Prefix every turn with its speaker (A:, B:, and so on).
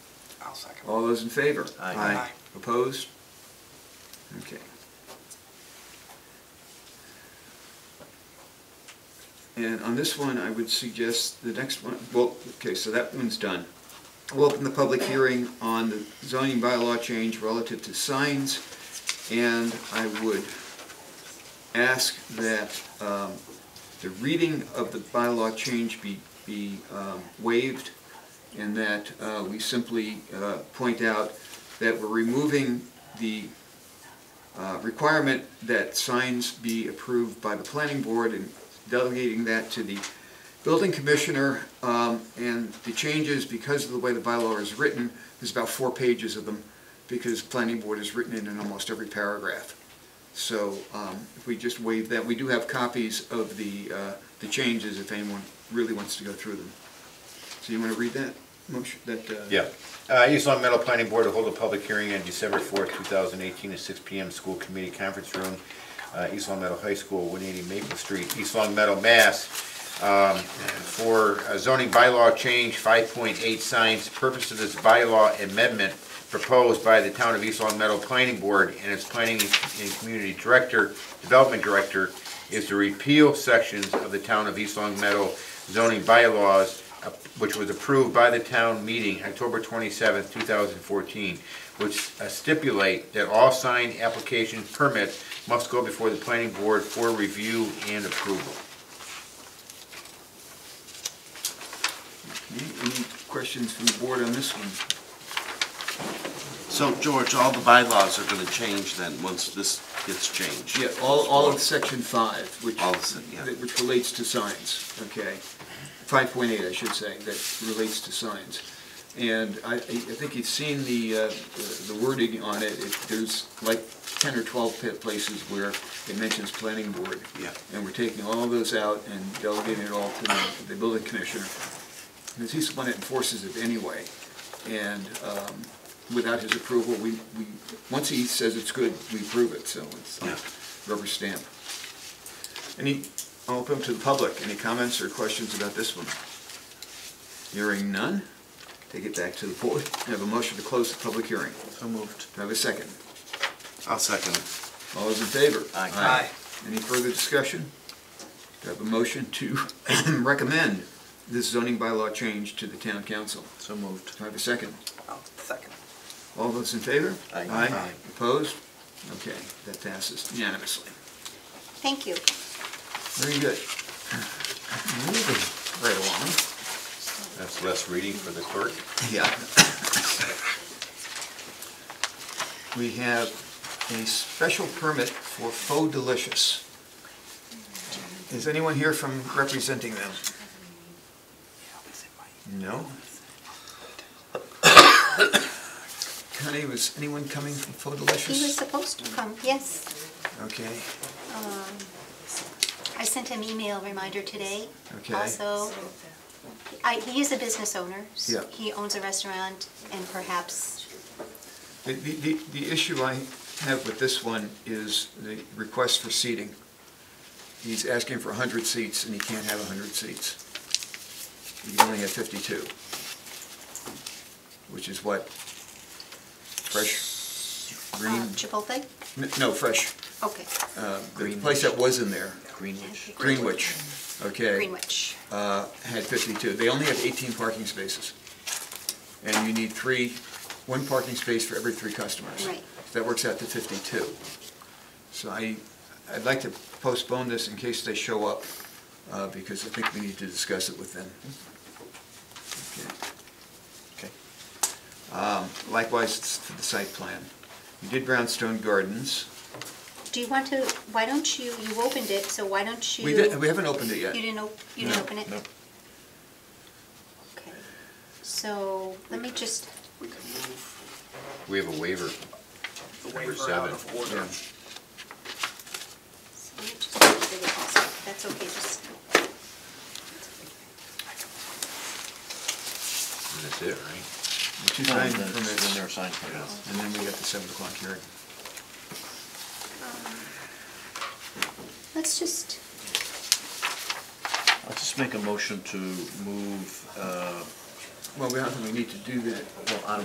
A: I'll second.
B: Oh.
C: All those in favor?
B: Aye.
A: Aye.
C: Opposed? Okay. And on this one, I would suggest the next one, well, okay, so that one's done. We'll open the public hearing on the zoning bylaw change relative to signs, and I would ask that um, the reading of the bylaw change be, be um, waived, and that uh, we simply uh, point out that we're removing the uh, requirement that signs be approved by the planning board and delegating that to the building commissioner. Um, And the changes, because of the way the bylaw is written, there's about four pages of them, because planning board is written in in almost every paragraph. So um, if we just waive that, we do have copies of the, uh, the changes if anyone really wants to go through them. So you want to read that motion, that? uh,
B: Yeah. Uh, East Long Meadow Planning Board to hold a public hearing on December fourth, two thousand eighteen, at six P M. School Committee Conference Room, uh, East Long Meadow High School, one eighty Maple Street, East Long Meadow, Mass. um, For a zoning bylaw change, five point eight signs, purpose of this bylaw amendment proposed by the Town of East Long Meadow Planning Board and its Planning and Community Director, Development Director, is to repeal sections of the Town of East Long Meadow zoning bylaws uh, which was approved by the town meeting October 27, 2014, which uh, stipulate that all signed application permits must go before the planning board for review and approval.
C: Any any questions from the board on this one?
D: So, George, all the bylaws are gonna change then, once this gets changed?
C: Yeah, all, all of section five, which,
D: All of se- yeah.
C: that- which relates to signs, okay? Five point eight, I should say, that relates to signs. And I, I I think you've seen the, uh, the wording on it, It- there's like ten or twelve pa- places where it mentions planning board.
D: Yeah.
C: And we're taking all those out and delegating it all to the- the building commissioner. Because he's the one that enforces it anyway. And um, without his approval, we, we, once he says it's good, we approve it, so it's like
D: Yeah.
C: rubber stamp. Any, I'll open up to the public, any comments or questions about this one? Hearing none, take it back to the board. I have a motion to close the public hearing.
D: So moved.
C: Do I have a second?
D: I'll second it.
C: All those in favor?
D: Aye.
A: Aye.
C: Any further discussion? Do I have a motion to recommend this zoning bylaw change to the town council?
D: So moved.
C: Do I have a second?
A: I'll second.
C: All those in favor?
D: Aye.
C: Aye.
D: Aye.
C: Opposed? Okay, that passes unanimously.
E: Thank you.
C: Very good. Moving right along.
B: That's less reading for the clerk.
C: Yeah. We have a special permit for Faux Delicious. Is anyone here from representing them? No? Connie, was anyone coming from Faux
E: He was
C: Delicious?
E: supposed to come, yes.
C: Okay,
E: Um, I sent him email reminder today.
C: Okay.
E: Also, I, he is a business owner. s-
C: Yeah.
E: He owns a restaurant and perhaps, um,
C: The- the, the the issue I have with this one is the request for seating. He's asking for 100 seats, and he can't have 100 seats. He can only have 52, which is what? Fresh, green,
E: uh, Chipotle?
C: n- no, fresh,
E: Okay,
C: uh, the place that was in there,
D: Greenwich.
C: Greenwich, okay,
E: Greenwich.
C: uh, had 52. They only have 18 parking spaces. And you need three, one parking space for every three customers.
E: Right.
C: That works out to 52. So I, I'd like to postpone this in case they show up, uh, because I think we need to discuss it with them. Okay. Um, Likewise, it's for the site plan. You did Brownstone Gardens.
E: Do you want to, why don't you, you opened it, so why don't you?
C: We didn't, we haven't opened it yet.
E: You didn't, op- you didn't
C: No,
E: open it?
C: no.
E: Okay, so let me just,
A: We can move
B: We have a waiver.
A: the
B: Number
A: waiver out
B: seven.
A: of order.
E: so let me just get rid of all stuff. that's okay, just.
B: And that's it, right?
C: Two sign permits,
D: there are sign permits.
C: and then we got the 7 o'clock hearing.
E: um, Let's just,
F: I'll just make a motion to move, uh,
C: Well, we don't think we need to do that
F: well, I don't